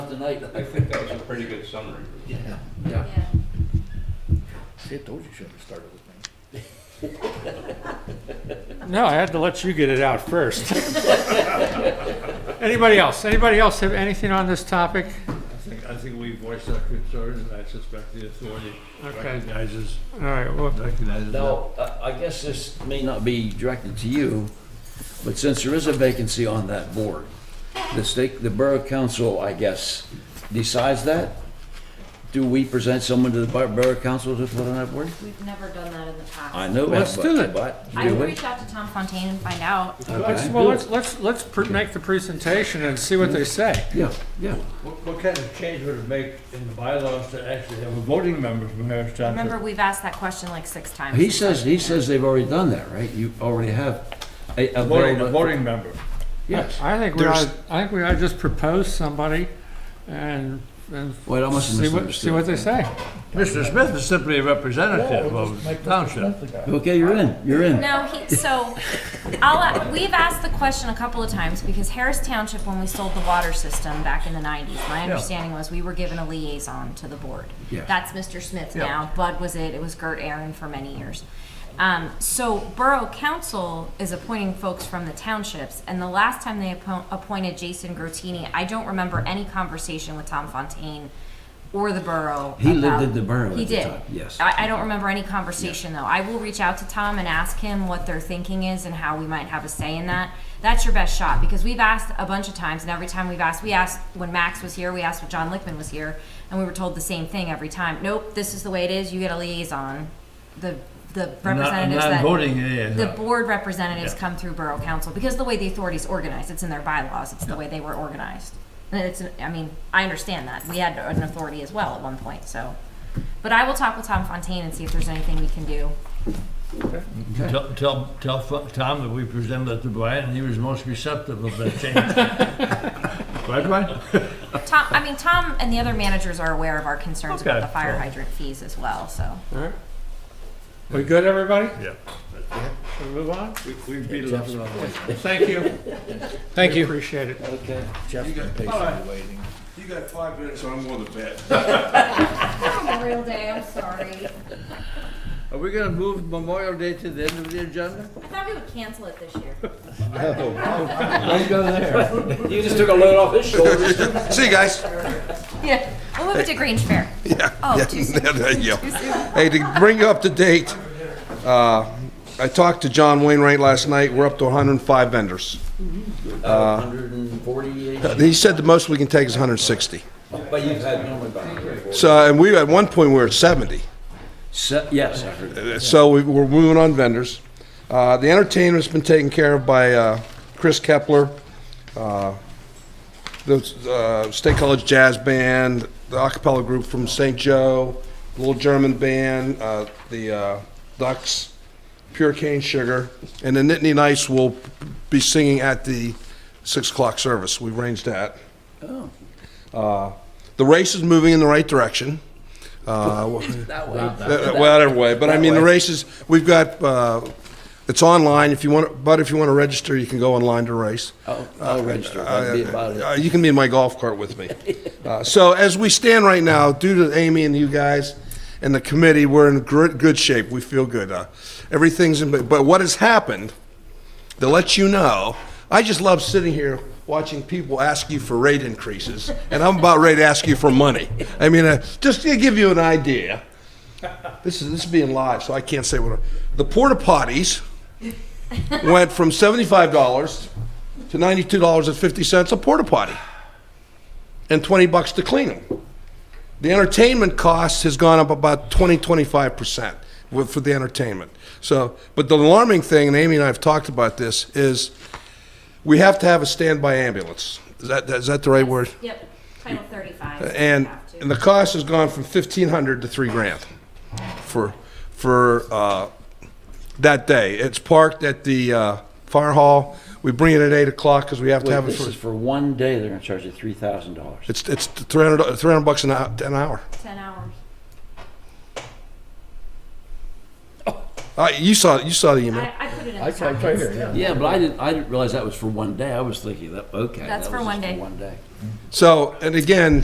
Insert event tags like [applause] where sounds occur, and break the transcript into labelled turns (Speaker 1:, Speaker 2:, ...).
Speaker 1: tonight.
Speaker 2: I think that was a pretty good summary.
Speaker 1: Yeah,
Speaker 3: Yeah.
Speaker 1: yeah.
Speaker 3: See, I told you you shouldn't have started with me.
Speaker 4: No, I had to let you get it out first. Anybody else? Anybody else have anything on this topic?
Speaker 5: I think, I think we voiced our concerns, and I suspect the authority
Speaker 4: Okay,
Speaker 5: recognizes,
Speaker 4: all right, well,
Speaker 5: recognizes that.
Speaker 1: Now, I- I guess this may not be directed to you, but since there is a vacancy on that board, the state, the Borough Council, I guess, decides that? Do we present someone to the Bor- Borough Council to put on that board?
Speaker 6: We've never done that in the past.
Speaker 1: I know
Speaker 4: Let's
Speaker 1: that,
Speaker 4: do
Speaker 1: but,
Speaker 4: it.
Speaker 1: but,
Speaker 6: I
Speaker 1: do
Speaker 6: can
Speaker 1: we?
Speaker 6: reach out to Tom Fontaine and find out.
Speaker 4: let's,
Speaker 1: Okay.
Speaker 4: well, let's, let's, let's pr- make the presentation and see what they say.
Speaker 1: Yeah, yeah.
Speaker 5: What, what kind of change would it make in the bylaws to actually have a voting member from Harris
Speaker 6: Remember,
Speaker 5: Township?
Speaker 6: we've asked that question like six times.
Speaker 1: He says, he says they've already done that, right? You already have a, a.
Speaker 5: Voting, a
Speaker 1: bill that-
Speaker 5: voting member.
Speaker 1: Yes.
Speaker 4: I think we
Speaker 7: There's-
Speaker 4: ought, I think we ought to just propose somebody and, and
Speaker 1: Wait, I must have
Speaker 4: see what, see what
Speaker 1: misunderstood.
Speaker 4: they say.
Speaker 5: Mr. Smith is simply a representative of the township.
Speaker 1: Okay, you're in, you're in.
Speaker 6: No, he, so, I'll, uh, we've asked the question a couple of times, because Harris Township, when we sold the water system back in the nineties, my understanding was we were given a liaison to the board.
Speaker 1: Yeah.
Speaker 6: That's Mr. Smith now, Bud was it, it was Gert Aaron for many years. Um, so Borough Council is appointing folks from the townships, and the last time they appo- appointed Jason Grotini, I don't remember any conversation with Tom Fontaine or the borough.
Speaker 1: He lived
Speaker 6: about-
Speaker 1: in the borough
Speaker 6: He
Speaker 1: at the
Speaker 6: did.
Speaker 1: time, yes.
Speaker 6: I, I don't remember any conversation though. I will reach out to Tom and ask him what their thinking is and how we might have a say in that. That's your best shot because we've asked a bunch of times, and every time we've asked, we asked when Max was here, we asked when John Lickman was here, and we were told the same thing every time. Nope, this is the way it is. You get a liaison. The the representatives that
Speaker 5: Non-voting liaison.
Speaker 6: the board representatives
Speaker 5: Yeah.
Speaker 6: come through borough council because the way the authority's organized, it's in their bylaws, it's the way they were organized. And it's, I mean, I understand that. We had an authority as well at one point, so. But I will talk with Tom Fontaine and see if there's anything we can do.
Speaker 5: Tell, tell, tell Fo- Tom that we presented it to Brian, and he was most receptive of that [laughs] change. Right, Brian?
Speaker 6: Tom, I mean, Tom and the other managers are aware of our concerns about
Speaker 5: Okay.
Speaker 6: the fire hydrant fees as well, so.
Speaker 4: All right. We good, everybody?
Speaker 5: Yeah.
Speaker 4: Should we move on?
Speaker 5: We beat it up.
Speaker 4: Thank you. Thank you. Appreciate it.
Speaker 3: Jeff's been patiently waiting.
Speaker 7: You got five minutes, I'm going to bed.
Speaker 6: On a real day, I'm sorry.
Speaker 5: Are we gonna move Memorial Day to the end of the agenda?
Speaker 6: I thought we would cancel it this year.
Speaker 1: Don't go there. You just took a load off his shoulders.
Speaker 7: See you guys.
Speaker 6: Yeah, we'll move it to Grange Fair.
Speaker 7: Yeah.
Speaker 6: Oh,
Speaker 7: [laughs] yeah,
Speaker 6: too soon.
Speaker 7: there you go. Hey, to bring you up to date, uh, I talked to John Wainwright last night. We're up to 105 vendors.
Speaker 1: Hundred and forty-eight,
Speaker 7: He said the most we can take is 160.
Speaker 1: but you've had normally about hundred and forty.
Speaker 7: So, and we, at one point, we were at 70.
Speaker 1: Se- uh, Yes, I heard that.
Speaker 7: So we- we're moving on vendors. Uh, The entertainment's been taken care of by uh, Chris Kepler, uh, the uh, State College Jazz Band, the a cappella group from St. Joe, Little German Band, uh, the uh, Ducks, Pure Cane Sugar, and the Nittany Knights will be singing at the 6 o'clock service. We arranged that. Uh, The race is moving in the right direction. Uh, that- Whatever way, but I mean, the races, we've got, uh, it's online, if you want, but if you want to register, you can go online to race.
Speaker 1: I'll, I'll register, that'd be about
Speaker 7: Uh,
Speaker 1: it.
Speaker 7: You can be in my golf cart with
Speaker 1: [laughs]
Speaker 7: me. Uh, So as we stand right now, due to Amy and you guys and the committee, we're in good, good shape, we feel good. Uh, Everything's in, but what has happened, to let you know, I just love sitting here watching people ask you for rate increases, and I'm about ready to ask you for money. I mean, uh, just to give you an idea, this is this is being live, so I can't say what. I- The porta potties went from seventy-five dollars to ninety-two dollars and fifty cents a porta potty, and twenty bucks to clean them. The entertainment cost has gone up about 20, 25 percent for the entertainment. So, but the alarming thing, and Amy and I have talked about this, is we have to have a standby ambulance. Is that is that the right word?
Speaker 6: Yep, Title thirty-five.
Speaker 7: And, and the cost has gone from fifteen hundred to three grand for, for, uh, that day. It's parked at the, uh, fire hall. We bring it at eight o'clock because we have to
Speaker 1: Wait,
Speaker 7: have it
Speaker 1: this is
Speaker 7: for,
Speaker 1: for one day, they're gonna charge you three thousand dollars.
Speaker 7: it's, it's three hundred, three hundred bucks an hour, an hour.
Speaker 6: Ten hours.
Speaker 7: Uh, you saw, you saw the email.
Speaker 6: I, I put it in the
Speaker 3: I saw it right here, yeah.
Speaker 1: Yeah, but I didn't, I didn't realize that was for one day, I was thinking that, okay.
Speaker 6: That's
Speaker 1: that
Speaker 6: for
Speaker 1: was
Speaker 6: one
Speaker 1: just
Speaker 6: day.
Speaker 1: One day.
Speaker 7: So, and again,